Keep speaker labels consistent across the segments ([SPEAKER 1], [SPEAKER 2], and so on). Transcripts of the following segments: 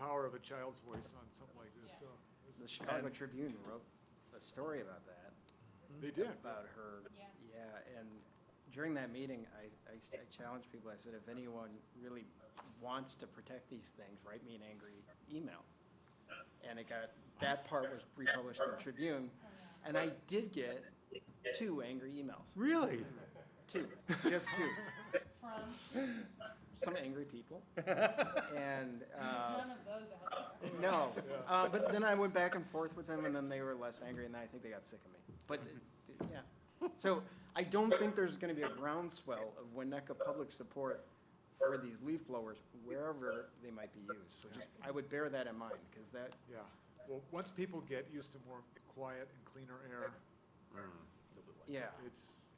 [SPEAKER 1] a child's voice on something like this, so. it
[SPEAKER 2] The
[SPEAKER 1] was-
[SPEAKER 2] Chicago
[SPEAKER 3] And-
[SPEAKER 2] Tribune wrote a story about that.
[SPEAKER 1] They did.
[SPEAKER 2] About her.
[SPEAKER 4] Yeah.
[SPEAKER 2] Yeah, and during that meeting, I, I s- I challenged people, I said, if anyone really wants to protect these things, write me an angry email. And it got, that part was republished in the Tribune,
[SPEAKER 4] Uh,
[SPEAKER 2] and I did get two angry emails,
[SPEAKER 1] Really?
[SPEAKER 2] two, just two.
[SPEAKER 4] From,
[SPEAKER 2] Some angry people, and, uh,
[SPEAKER 4] none of those out there.
[SPEAKER 2] No,
[SPEAKER 1] Yeah.
[SPEAKER 2] uh, but then I went back and forth with them, and then they were less angry, and I think they got sick of me. But, it- it- yeah, so I don't think there's gonna be a groundswell of Winnetka public support for these leaf blowers, wherever they might be used, so just, I would bear that in mind, because that,
[SPEAKER 1] Yeah. Well, once people get used to more quiet and cleaner air,
[SPEAKER 2] yeah,
[SPEAKER 1] it's,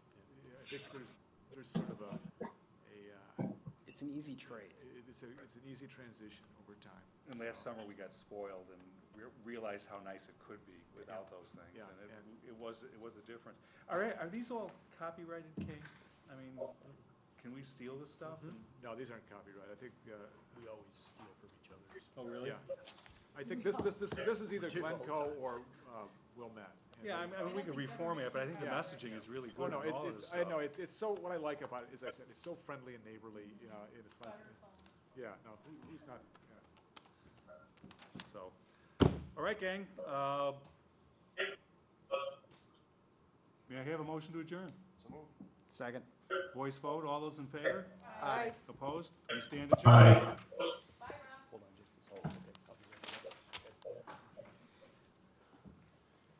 [SPEAKER 1] yeah, I think there's, there's sort of a, a, uh,
[SPEAKER 2] it's an easy trade.
[SPEAKER 1] it- it's a, it's an easy transition over time.
[SPEAKER 3] And last
[SPEAKER 1] so.
[SPEAKER 3] summer, we got spoiled and re- realized how nice it could be without those things.
[SPEAKER 1] Yeah,
[SPEAKER 3] And
[SPEAKER 1] and-
[SPEAKER 3] it, it was, it was a difference. All right, are these all copyrighted, Kate? I mean, can we steal this stuff?
[SPEAKER 1] Mhm. No, these aren't copyright. I think, uh,
[SPEAKER 5] We always steal from each other's.
[SPEAKER 3] Oh, really?
[SPEAKER 1] yeah. I think this, this, this, this is either
[SPEAKER 5] Two all the
[SPEAKER 1] Glencoe
[SPEAKER 5] time.
[SPEAKER 1] or, uh, Wilmette. And
[SPEAKER 3] Yeah, I mean, I mean,
[SPEAKER 4] And
[SPEAKER 3] we
[SPEAKER 4] I
[SPEAKER 3] could
[SPEAKER 4] think
[SPEAKER 3] reform it, but I think the
[SPEAKER 1] Yeah.
[SPEAKER 3] messaging is really
[SPEAKER 1] Oh,
[SPEAKER 3] good
[SPEAKER 1] no,
[SPEAKER 3] on
[SPEAKER 1] it,
[SPEAKER 3] all of this
[SPEAKER 1] it's,
[SPEAKER 3] stuff.
[SPEAKER 1] I know, it, it's so, what I like about it is I said, it's so friendly and neighborly, you know, and it's not,
[SPEAKER 4] Butterflies.
[SPEAKER 1] yeah, no, who- who's not, yeah.
[SPEAKER 3] So, all right, gang. uh, May I have a motion to adjourn?
[SPEAKER 2] Second.
[SPEAKER 3] Voice vote, all those in favor?
[SPEAKER 2] Aye.
[SPEAKER 3] Opposed? We stand adjourned.